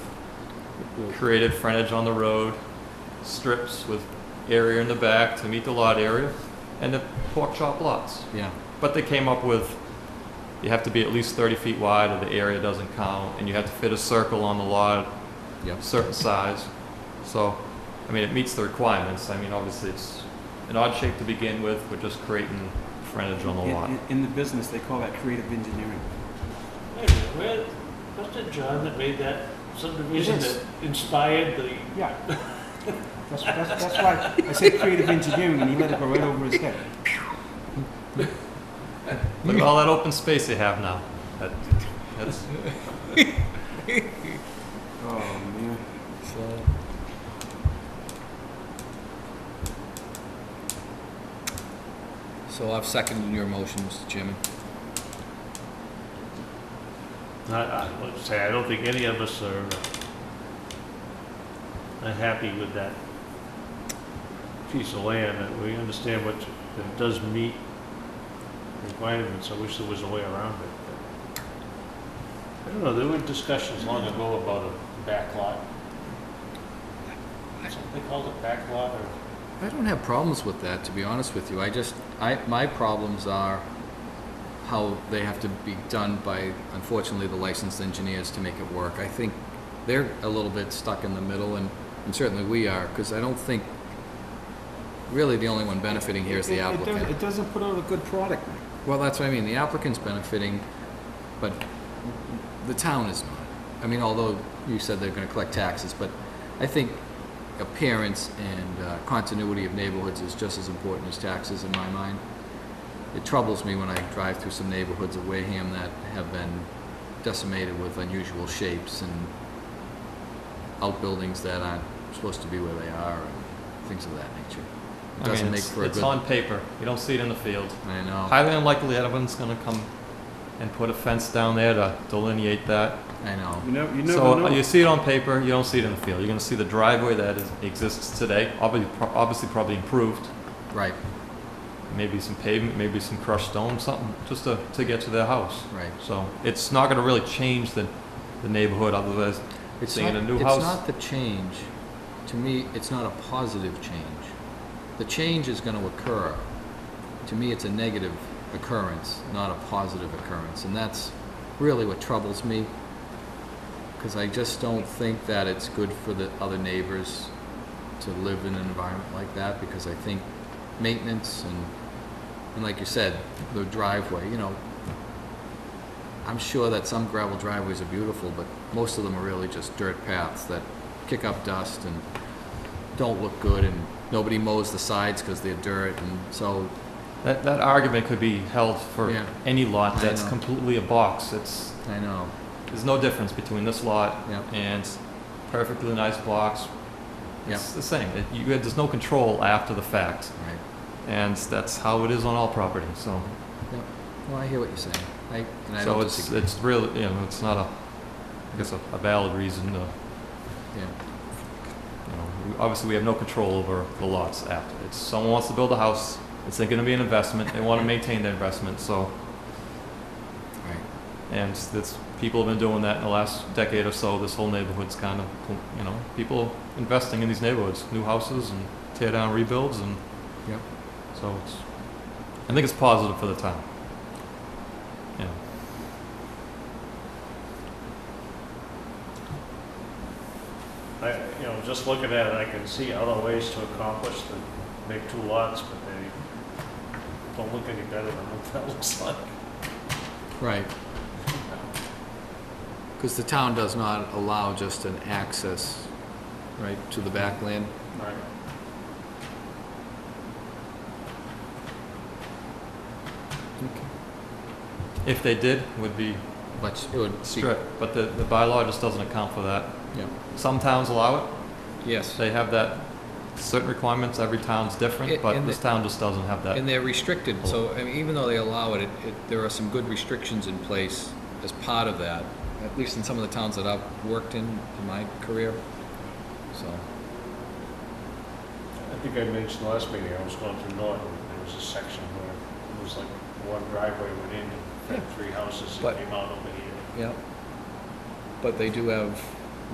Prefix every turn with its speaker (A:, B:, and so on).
A: created frontage on the road, strips with area in the back to meet the lot area, and the pork chop lots.
B: Yeah.
A: But they came up with, you have to be at least 30 feet wide, or the area doesn't count, and you have to fit a circle on the lot
B: Yep.
A: a certain size. So, I mean, it meets the requirements. I mean, obviously, it's an odd shape to begin with. We're just creating frontage on the lot.
C: In, in the business, they call that creative engineering.
D: Wait a minute, where, was it John that made that subdivision
C: It is.
D: that inspired the,
C: Yeah. That's, that's, that's why I said creative engineering, and he let it go right over his head.
A: Look at all that open space they have now. That, that's,
C: Oh, man.
B: So, so I've seconded your motion, Mr. Chairman.
D: I, I would say, I don't think any of us are uh, unhappy with that piece of land, and we understand what, that it does meet requirements, I wish there was a way around it. but- I don't know, there were discussions long ago about a back lot. Something they called it back lot, or?
B: I don't have problems with that, to be honest with you. I just, I, my problems are how they have to be done by, unfortunately, the licensed engineers to make it work. I think they're a little bit stuck in the middle, and, and certainly we are, because I don't think, really, the only one benefiting here is the
C: It- it- it doesn't-
B: applicant.
C: It doesn't put out a good product, Mike.
B: Well, that's what I mean. The applicant's benefiting, but the town is not. I mean, although you said they're gonna collect taxes, but I think appearance and uh, continuity of neighborhoods is just as important as taxes in my mind. It troubles me when I drive through some neighborhoods of Wareham that have been decimated with unusual shapes and outbuildings that aren't supposed to be where they are and things of that nature.
A: I
B: It
A: mean,
B: doesn't make
A: it's,
B: for a
A: it's
B: good.
A: on paper. You don't see it in the field.
B: I know,
A: Highly unlikely anyone's going to come and put a fence down there to delineate that.
B: I know.
C: You never, you never
A: So uh,
C: know.
A: you see it on paper, you don't see it in the field. You're going to see the driveway that is, exists today, obviously, obviously probably improved.
B: Right,
A: maybe some pavement, maybe some crushed stone, something, just to, to get to their house.
B: right.
A: So it's not gonna really change the, the neighborhood otherwise.
B: It's
A: Seeing
B: not,
A: a new
B: it's
A: house.
B: not the change. To me, it's not a positive change. The change is going to occur. To me, it's a negative occurrence, not a positive occurrence. And that's really what troubles me because I just don't think that it's good for the other neighbors to live in an environment like that because I think maintenance and, and like you said, the driveway, you know, I'm sure that some gravel driveways are beautiful, but most of them are really just dirt paths that kick up dust and don't look good, and nobody mows the sides because they're dirt, and so,
A: That, that argument could be held for
B: Yeah.
A: any lot
B: I
A: that's
B: know.
A: completely a box. It's,
B: I know,
A: there's no difference between this lot
B: yeah,
A: and perfectly nice blocks.
B: yeah,
A: It's the same. It- You, there's no control after the fact.
B: right.
A: And that's how it is on all property, so.
B: Well, I hear what you're saying, I, and I
A: So
B: don't
A: it's,
B: disagree,
A: it's really, you know, it's not a, I guess, a a valid reason to, you
B: yeah,
A: know, we- obviously we have no control over the lots after. It's, someone wants to build a house, it's gonna be an investment, they wanna maintain their investment, so,
B: right.
A: and that's, people have been doing that in the last decade or so, this whole neighborhood's kind of, you know, people investing in these neighborhoods, new houses and tear down rebuilds and.
B: Yep.
A: So it's, I think it's positive for the town. Yeah.
D: I, you know, just looking at it, I can see other ways to accomplish the, make two lots, but they don't look any better than what that looks like.
B: Right. Because the town does not allow just an access, right, to the backland.
D: Right.
A: If they did, would be
B: Much, it would be,
A: strict, but the, the bylaw just doesn't account for that.
B: yeah,
A: Some towns allow it,
B: yes.
A: they have that, certain requirements, every town's different,
B: It-
A: but
B: and
A: this
B: the-
A: town just doesn't have that.
B: And they're restricted, so, I mean, even though they allow it, it, it- there are some good restrictions in place as part of that, at least in some of the towns that I've worked in in my career, so.
D: I think I mentioned last meeting, I was going through Norton, and there was a section where it was like one driveway went in and had three houses
B: But-
D: that came out over here.
B: Yep. But they do have